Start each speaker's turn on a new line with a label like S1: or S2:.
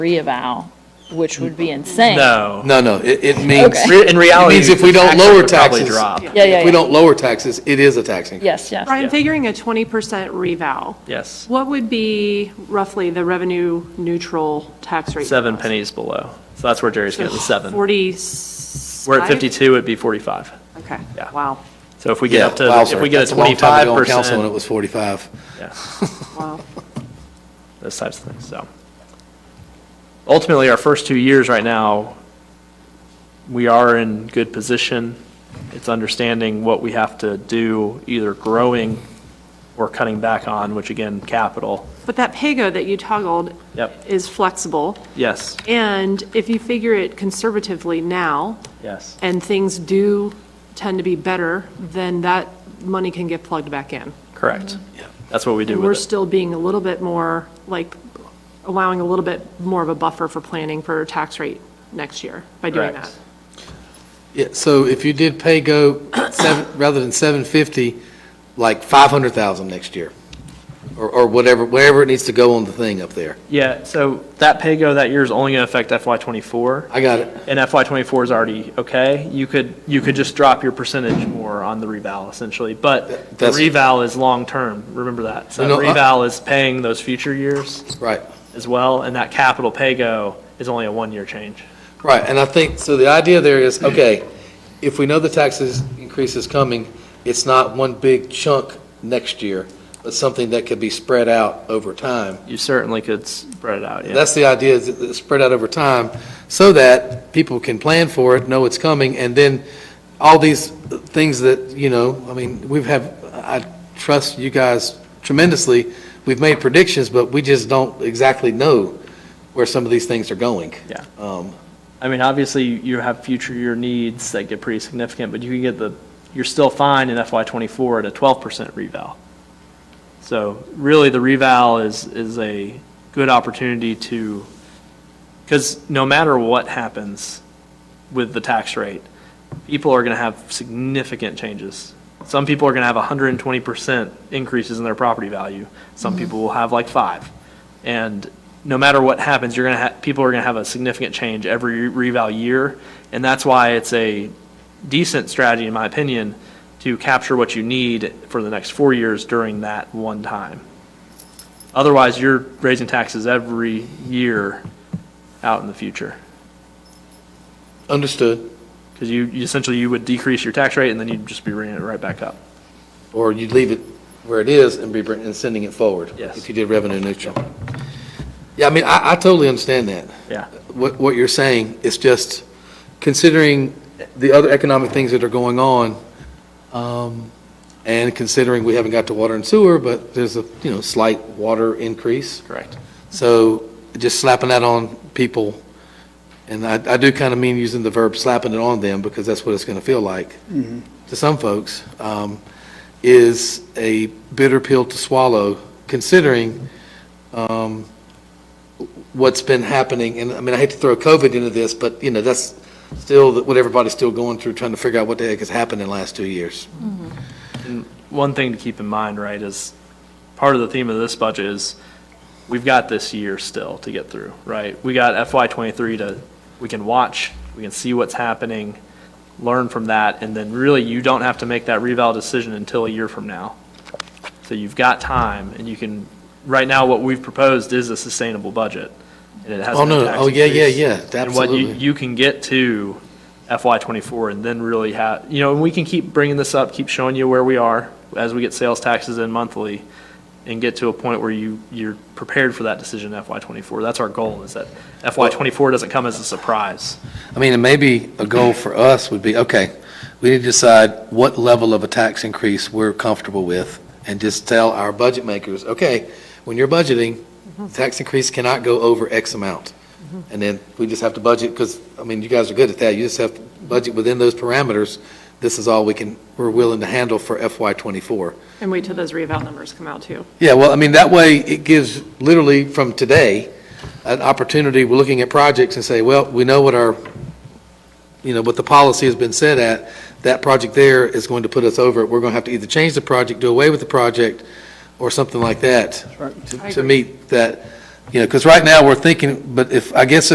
S1: reeval, which would be insane.
S2: No.
S3: No, no, it, it means,
S1: Okay.
S2: Re- In reality.
S3: It means if we don't
S2: taxes
S3: lower
S2: would probably
S3: taxes-
S2: drop.
S1: Yeah, yeah,
S3: if
S1: yeah.
S3: we don't lower taxes, it is a tax increase.
S1: Yes, yes.
S2: Yeah.
S4: Brian, figuring a 20% revow,
S2: Yes,
S4: what would be roughly the revenue neutral tax rate?
S2: seven
S4: for us?
S2: pennies below. So that's where Jerry's getting the seven. We're
S4: 45?
S2: at 52, it'd be 45.
S4: Okay,
S2: Yeah.
S4: wow,
S2: So if we get up to,
S3: wow,
S2: if
S3: sir,
S2: we get
S3: that's
S2: a
S3: a long time ago on Council when it
S2: 25%,
S3: was 45.
S2: yeah,
S4: wow.
S2: those types of things, so. Ultimately, our first two years right now, we are in good position. It's understanding what we have to do, either growing or cutting back on, which again, capital.
S4: But that pay-go that you toggled
S2: Yep.
S4: is flexible,
S2: Yes,
S4: and if you figure it conservatively now,
S2: yes.
S4: and things do tend to be better, then that money can get plugged back in.
S2: Correct. That's what we do
S4: And we're
S2: with it.
S4: still being a little bit more, like, allowing a little bit more of a buffer for planning for tax rate next year by doing
S2: Correct.
S4: that.
S3: Yeah, so if you did pay go seven, rather than 750, like 500,000 next year, or, or whatever, wherever it needs to go on the thing up there.
S2: Yeah, so that pay go that year is only going to affect FY '24,
S3: I got it.
S2: and FY '24 is already okay. You could, you could just drop your percentage more on the reval essentially, but the
S3: That's-
S2: reval is long-term, remember that. So
S3: No, I-
S2: reval is paying those future years
S3: Right,
S2: as well, and that capital pay go is only a one-year change.
S3: right. And I think, so the idea there is, okay, if we know the taxes increase is coming, it's not one big chunk next year, but something that could be spread out over time.
S2: You certainly could spread it out, yeah.
S3: That's the idea, is that it's spread out over time, so that people can plan for it, know it's coming, and then all these things that, you know, I mean, we've had, I trust you guys tremendously. We've made predictions, but we just don't exactly know where some of these things are going.
S2: Yeah.
S3: Um,
S2: I mean, obviously, you have future year needs that get pretty significant, but you can get the, you're still fine in FY '24 at a 12% reval. So really, the reval is, is a good opportunity to, because no matter what happens with the tax rate, people are going to have significant changes. Some people are going to have 120% increases in their property value. Some people will have like five. And no matter what happens, you're going to have, people are going to have a significant change every reval year. And that's why it's a decent strategy, in my opinion, to capture what you need for the next four years during that one time. Otherwise, you're raising taxes every year out in the future.
S3: Understood,
S2: Because you, you essentially, you would decrease your tax rate and then you'd just be bringing it right back up.
S3: or you'd leave it where it is and be, br- and sending it forward.
S2: Yes.
S3: If you did revenue neutral. Yeah, I mean, I, I totally understand that.
S2: Yeah.
S3: what, what you're saying, is just considering the other economic things that are going on, um, and considering we haven't got to water and sewer, but there's a, you know, slight water increase.
S2: Correct.
S3: So just slapping that on people, and I, I do kind of mean using the verb slapping it on them, because that's what it's going to feel like to some folks, um, is a bitter pill to swallow, considering um, what's been happening. And, I mean, I hate to throw COVID into this, but, you know, that's still what everybody's still going through, trying to figure out what the heck has happened in the last two years.
S2: One thing to keep in mind, right, is part of the theme of this budget is we've got this year still to get through, right? We got FY twenty-three to, we can watch, we can see what's happening, learn from that, and then really you don't have to make that reval decision until a year from now. So you've got time and you can, right now, what we've proposed is a sustainable budget. And it has
S3: Oh, no,
S2: tax
S3: oh, yeah, yeah,
S2: increase.
S3: yeah,
S2: And what you,
S3: absolutely.
S2: you can get to FY twenty-four and then really have, you know, and we can keep bringing this up, keep showing you where we are as we get sales taxes in monthly and get to a point where you, you're prepared for that decision in FY twenty-four. That's our goal, is that FY twenty-four doesn't come as a surprise.
S3: I mean, and maybe a goal for us would be, okay, we need to decide what level of a tax increase we're comfortable with, and just tell our budget makers, okay, when you're budgeting, tax increase cannot go over X amount. And then we just have to budget, because, I mean, you guys are good at that, you just have to budget within those parameters, this is all we can, we're willing to handle for FY twenty-four.
S4: And wait till those revow numbers come out, too.
S3: Yeah, well, I mean, that way, it gives literally from today, an opportunity, we're looking at projects and say, well, we know what our, you know, what the policy has been set at, that project there is going to put us over, we're going to have to either change the project, do away with the project, or something like that, to- to
S4: agree.
S3: meet that. You know, because right now, we're thinking, but if, I guess